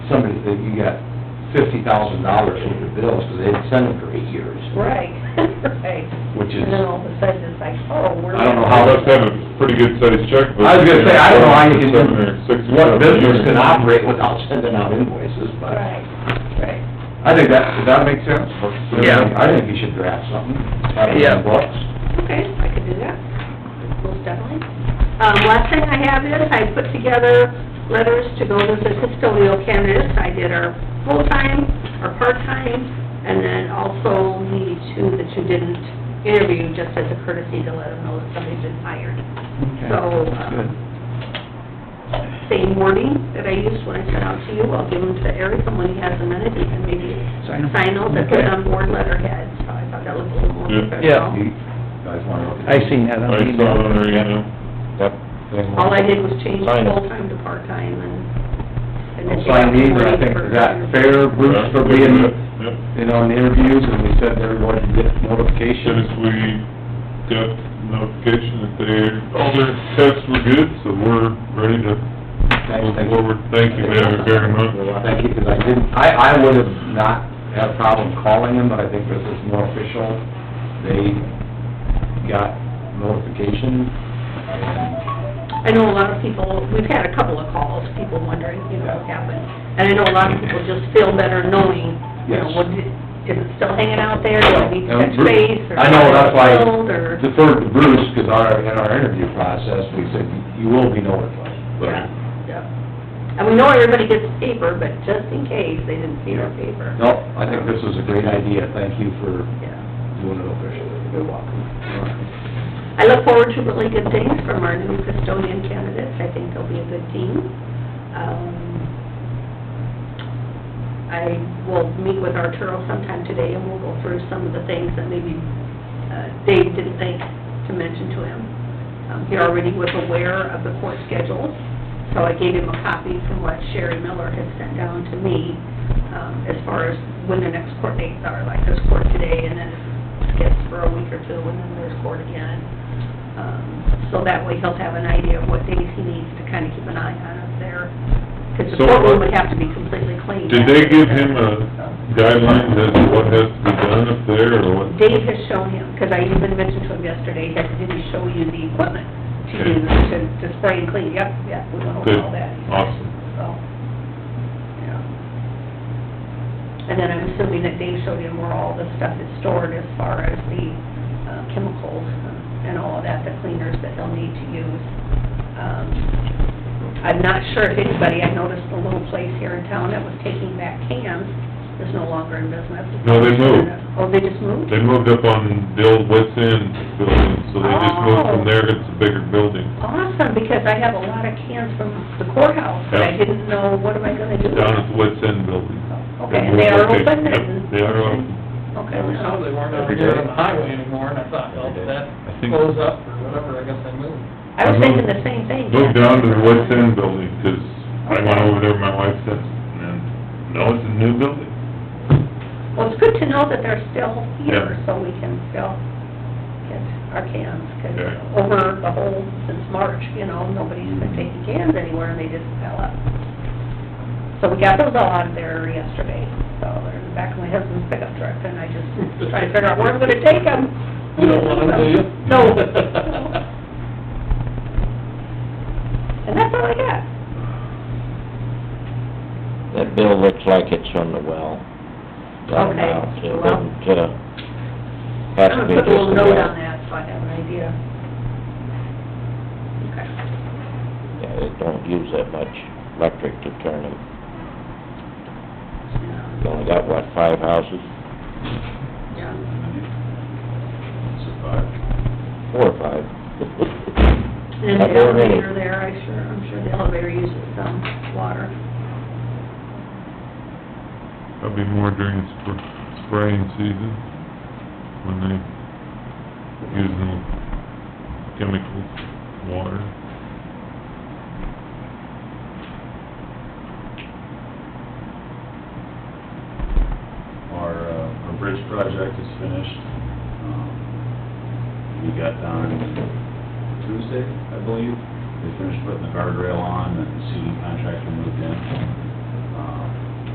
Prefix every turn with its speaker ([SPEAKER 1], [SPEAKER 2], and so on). [SPEAKER 1] that you got fifty thousand dollars worth of bills, because they didn't send them for eight years,
[SPEAKER 2] Right, right.
[SPEAKER 1] which is,
[SPEAKER 2] And then all of a sudden it's like, oh, we're.
[SPEAKER 1] I don't know
[SPEAKER 2] gonna-
[SPEAKER 1] how
[SPEAKER 3] Must have a pretty good sized checkbook.
[SPEAKER 1] I was gonna say, I don't know how you can,
[SPEAKER 3] Seven or six
[SPEAKER 1] do- what
[SPEAKER 3] thousand a
[SPEAKER 1] business
[SPEAKER 3] year.
[SPEAKER 1] can operate without sending out invoices, but
[SPEAKER 2] Right, right.
[SPEAKER 1] I think that, does that make sense?
[SPEAKER 4] Yeah.
[SPEAKER 1] I think you should draft something, have it in
[SPEAKER 4] Yeah.
[SPEAKER 1] the books.
[SPEAKER 2] Okay, I could do that, most definitely. Um, last thing I have is, I put together letters to go visit custodial candidates. I did our full-time, our part-time, and then also the two that you didn't interview, just as a courtesy to let them know that somebody's been hired. So,
[SPEAKER 4] Good.
[SPEAKER 2] um, same wording that I used when I sent out to you, I'll give them to Eric, and when he has a minute, he can maybe
[SPEAKER 4] Sign 'em.
[SPEAKER 2] sign those and put
[SPEAKER 4] Okay.
[SPEAKER 2] on board letterhead, so I thought that was a little more
[SPEAKER 3] Yeah.
[SPEAKER 2] professional.
[SPEAKER 1] You guys wanna look at
[SPEAKER 4] I seen that on
[SPEAKER 3] I
[SPEAKER 4] the
[SPEAKER 3] saw it on
[SPEAKER 4] email.
[SPEAKER 3] there, you know.
[SPEAKER 2] All I did was change
[SPEAKER 3] Sign it.
[SPEAKER 2] full-time to part-time and... and then-
[SPEAKER 1] Don't sign these, but I think, is that fair, Bruce, for being,
[SPEAKER 3] Yep,
[SPEAKER 1] you know, in the interviews, and we said they're going to get
[SPEAKER 3] soon
[SPEAKER 1] notifications.
[SPEAKER 3] as we got notification that they, all their tests were good, so we're ready to move forward. Thank you very, very much.
[SPEAKER 1] Thank you, because I didn't, I, I would have not had a problem calling them, but I think this is more official. They got notification, and
[SPEAKER 2] I know a lot of people, we've had a couple of calls, people wondering, you know, what happened. And I know a lot of people just feel better knowing, you know,
[SPEAKER 1] Yes.
[SPEAKER 2] what, did- is it still hanging out there, do I need to touch
[SPEAKER 1] And Bruce-
[SPEAKER 2] base? or
[SPEAKER 1] I know, that's why-
[SPEAKER 2] build, Or,
[SPEAKER 1] deferred to Bruce, because our, in our interview process, we said, you will be notified.
[SPEAKER 2] yeah, yeah. And we know everybody gets paper, but just in case they didn't see our paper.
[SPEAKER 1] No, I think this is a great idea, thank you for
[SPEAKER 2] Yeah,
[SPEAKER 1] doing it officially.
[SPEAKER 2] you're welcome. I look forward to really good things from our new custodian candidates. I think they'll be a good team. Um, I will meet with Arturo sometime today and we'll go through some of the things that maybe uh, Dave didn't think to mention to him. Um, He already was aware of the court schedule, so I gave him a copy from what Sherry Miller had sent down to me um, as far as when the next court dates are, like there's court today and then it skips for a week or two and then there's court again. Um, So that way he'll have an idea of what days he needs to kind of keep an eye on up there. Because the
[SPEAKER 3] So-
[SPEAKER 2] courtroom would have to be completely cleaned.
[SPEAKER 3] Did they give him a guideline as to what has to be done up there, or what?
[SPEAKER 2] Dave has shown him, because I even mentioned to him yesterday, that did he show you the equipment to use
[SPEAKER 3] Okay.
[SPEAKER 2] to, to spray and clean? Yep, yep, we went over
[SPEAKER 3] Good,
[SPEAKER 2] all that.
[SPEAKER 3] awesome.
[SPEAKER 2] So, yeah. And then I'm assuming that Dave showed him where all the stuff is stored as far as the uh, chemicals and all of that, the cleaners that they'll need to use. Um, I'm not sure if anybody, I noticed the little place here in town that was taking back cans is no longer in business.
[SPEAKER 3] No, they moved.
[SPEAKER 2] Oh, they just moved?
[SPEAKER 3] They moved up on Bill West End building, so they just moved from there, it's a bigger building.
[SPEAKER 2] Awesome, because I have a lot of cans from the courthouse, but I
[SPEAKER 3] Yeah.
[SPEAKER 2] didn't know, what am I gonna do?
[SPEAKER 3] down at the West End building.
[SPEAKER 2] Okay, and they are open
[SPEAKER 3] Yep,
[SPEAKER 2] and-
[SPEAKER 3] They are open.
[SPEAKER 2] Okay.
[SPEAKER 5] Yeah, we saw they weren't over there on the highway anymore, and I thought, well, if that
[SPEAKER 3] I think-
[SPEAKER 5] blows up or whatever, I guess I moved.
[SPEAKER 2] I was thinking the same thing.
[SPEAKER 3] Moved Uh-huh. down to the West End building, 'cause I went over there, my wife said, and no, it's a new building.
[SPEAKER 2] Well, it's good to know that they're still here,
[SPEAKER 3] Yeah.
[SPEAKER 2] so we can still get our cans, 'cause
[SPEAKER 3] Yeah.
[SPEAKER 2] over the whole, since March, you know, nobody's been taking cans anywhere, and they just fell up. So we got those all out of there yesterday, so they're in the back of my husband's pickup truck, and I just trying to figure out where I'm gonna take them.
[SPEAKER 5] You don't want them, do you?
[SPEAKER 2] No. And that's all I got.
[SPEAKER 6] That bill looks like it's from the well. Got it
[SPEAKER 2] Okay,
[SPEAKER 6] out, so it
[SPEAKER 2] well.
[SPEAKER 6] doesn't get a, has to
[SPEAKER 2] I'm
[SPEAKER 6] be
[SPEAKER 2] gonna
[SPEAKER 6] just
[SPEAKER 2] put a little
[SPEAKER 6] the
[SPEAKER 2] note on
[SPEAKER 6] well.
[SPEAKER 2] that, so I have an idea. Okay.
[SPEAKER 6] Yeah, they don't use that much electric to turn them. You only got, what, five houses?
[SPEAKER 2] Yeah.
[SPEAKER 6] Four or five.
[SPEAKER 2] And
[SPEAKER 6] Not
[SPEAKER 2] the
[SPEAKER 6] very many.
[SPEAKER 2] elevator there, I sure, I'm sure the elevator uses some water.
[SPEAKER 3] That'll be more during the spr- spraying season, when they use the chemicals, water.
[SPEAKER 7] Our, uh, our bridge project is finished. Um, We got done Tuesday, I believe. They finished putting the guardrail on and the CD contractor moved in. Uh,